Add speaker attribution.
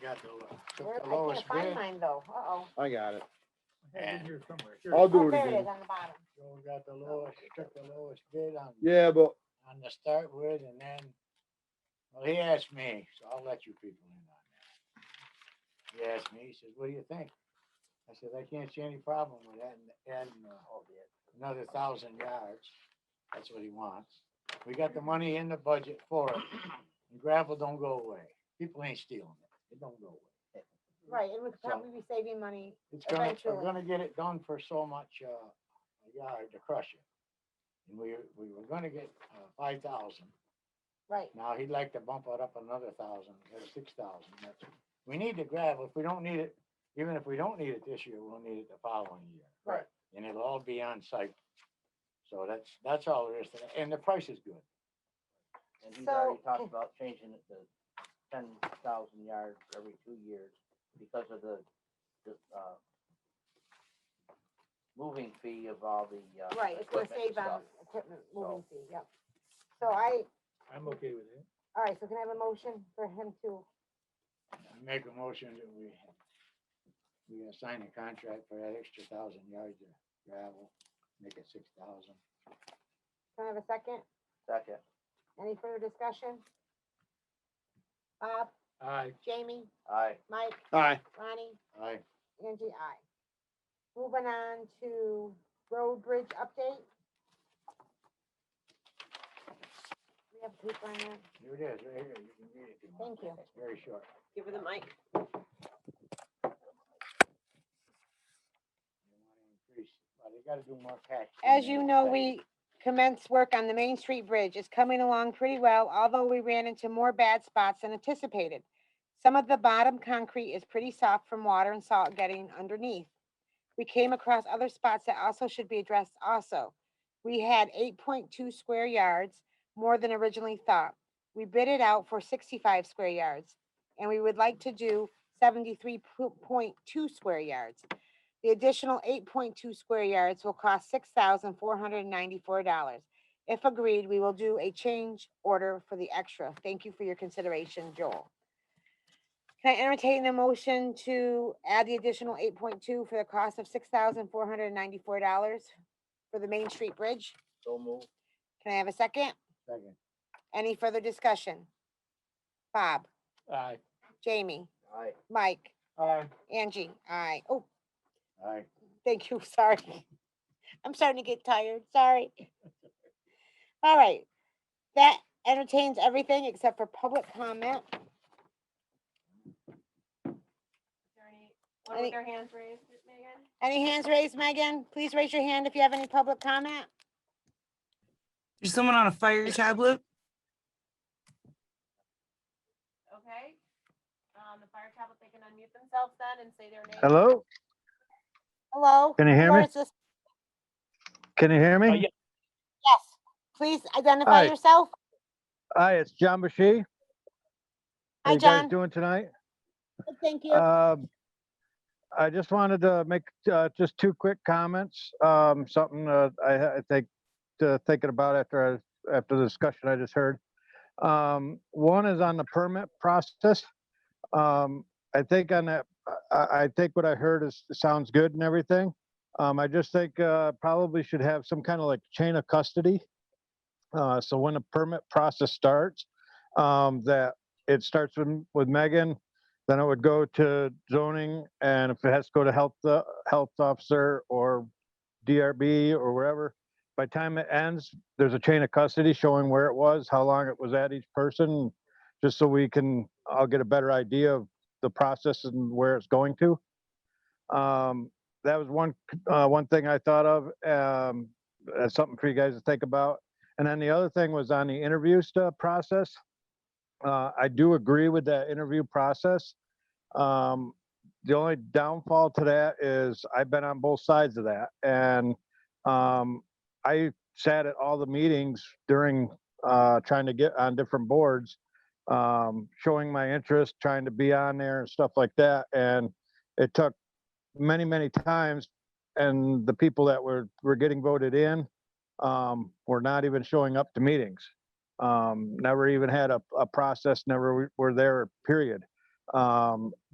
Speaker 1: had the, lo-
Speaker 2: Where,
Speaker 1: took the
Speaker 2: I
Speaker 1: lowest
Speaker 2: can't
Speaker 1: bid.
Speaker 2: find mine though, uh-oh.
Speaker 3: I got it.
Speaker 1: And-
Speaker 4: here somewhere.
Speaker 3: I'll
Speaker 4: Here,
Speaker 3: do
Speaker 2: Oh,
Speaker 3: it
Speaker 2: there it
Speaker 3: again.
Speaker 2: is on the bottom.
Speaker 1: Joe got the lowest, took the lowest bid on,
Speaker 3: Yeah, but
Speaker 1: on the start with and then, well, he asked me, so I'll let you people in on that. He asked me, he says, what do you think? I said, I can't see any problem with that and, and uh, another thousand yards. That's what he wants. We got the money in the budget for it. and Gravel don't go away. People ain't stealing it. It don't go away.
Speaker 2: Right, it would
Speaker 1: So-
Speaker 2: probably be saving money.
Speaker 1: It's gonna, we're
Speaker 2: Eventually.
Speaker 1: gonna get it done for so much, uh, a yard to crush it. And we, we were gonna get, uh, five thousand.
Speaker 2: Right,
Speaker 1: Now he'd like to bump it up another thousand, or six thousand. That's, we need the gravel. If we don't need it, even if we don't need it this year, we'll need it the following year.
Speaker 2: Right.
Speaker 1: And it'll all be on site. So that's, that's all there is. to that. And the price is good.
Speaker 5: And he's
Speaker 2: So- oh.
Speaker 5: already talked about changing it to ten thousand yards every two years because of the, the, uh, moving fee of all the, uh.
Speaker 2: right, it's gonna
Speaker 5: equipment and
Speaker 2: save on
Speaker 5: stuff.
Speaker 2: equipment moving
Speaker 5: So-
Speaker 2: fee, yep. So I,
Speaker 4: I'm okay with it.
Speaker 2: all right, so can I have a motion for him to,
Speaker 1: I Make a motion that we, we uh, sign a contract for that extra thousand yards of gravel, make it six thousand.
Speaker 2: can I have a second?
Speaker 5: Second.
Speaker 2: Any further discussion? Bob,
Speaker 4: Aye.
Speaker 2: Jamie,
Speaker 5: Aye.
Speaker 2: Mike,
Speaker 3: aye,
Speaker 2: Ronnie,
Speaker 1: Aye.
Speaker 2: Angie, I. Moving on to road bridge update. We have paper on that,
Speaker 1: Here it is, right here. You can read it if you want.
Speaker 2: thank you.
Speaker 1: It's very short.
Speaker 6: Give her the mic.
Speaker 1: They wanna increase- Well, they gotta do more patching
Speaker 2: As
Speaker 1: than
Speaker 2: you
Speaker 1: they
Speaker 2: know,
Speaker 1: say.
Speaker 2: we commenced work on the Main Street Bridge. It's coming along pretty well, although we ran into more bad spots than anticipated. Some of the bottom concrete is pretty soft from water and salt getting underneath. We came across other spots that also should be addressed also. We had eight point two square yards, more than originally thought. We bid it out for sixty-five square yards, and we would like to do seventy-three point two square yards. The additional eight point two square yards will cost six thousand four hundred and ninety-four dollars. If agreed, we will do a change order for the extra. Thank you for your consideration, Joel. Can I entertain the motion to add the additional eight point two for the cost of six thousand four hundred and ninety-four dollars for the Main Street Bridge?
Speaker 5: So move.
Speaker 2: Can I have a second?
Speaker 1: Second,
Speaker 2: Any further discussion? Bob,
Speaker 4: Aye.
Speaker 2: Jamie,
Speaker 5: Aye.
Speaker 2: Mike,
Speaker 4: Aye.
Speaker 2: Angie, I, oh,
Speaker 1: aye.
Speaker 2: Thank you, sorry. I'm starting to get tired, sorry. All right, that entertains everything except for public comment.
Speaker 6: Is there anyone
Speaker 2: Any-
Speaker 6: with their hands raised, Megan?
Speaker 2: Any hands raised, Megan? Please raise your hand if you have any public comment.
Speaker 7: There's someone on a fire tablet.
Speaker 6: Okay. Um, the fire tablet, they can unmute themselves then and say their name.
Speaker 8: Hello,
Speaker 2: Hello?
Speaker 8: Can you hear me?
Speaker 2: Laura, is this-
Speaker 8: can you hear
Speaker 4: Uh,
Speaker 8: me?
Speaker 4: yeah.
Speaker 2: Yes, please identify
Speaker 8: Hi.
Speaker 2: yourself.
Speaker 8: Hi, it's John Bashy. How
Speaker 2: Hi,
Speaker 8: you guys
Speaker 2: John.
Speaker 8: doing tonight?
Speaker 2: Good, Thank you.
Speaker 8: Um, I just wanted to make uh, just two quick comments. Um, Something uh, I I think, uh, thinking about after, I- after the discussion I just heard. Um, One is on the permit process. Um, I think on that, I- I I think what I heard is, sounds good and everything. Um, I just think uh, probably should have some kind of like chain of custody. Uh, So when the permit process starts, um, that it starts with with Megan, then it would go to zoning, and if it has to go to health, uh, health officer or DRB or wherever, by time it ends, there's a chain of custody showing where it was, how long it was at each person, just so we can, I'll get a better idea of the process and where it's going to. Um, that was one, c- uh, one thing I thought of, um, as something for you guys to think about. And then the other thing was on the interview stuff process. Uh, I do agree with that interview process. Um, the only downfall to that is I've been on both sides of that and, um, I sat at all the meetings during, uh, trying to get on different boards, um, showing my interest, trying to be on there and stuff like that. And it took many, many times and the people that were, were getting voted in, um, were not even showing up to meetings um, never even had a, a process, never w- were there, period. Um,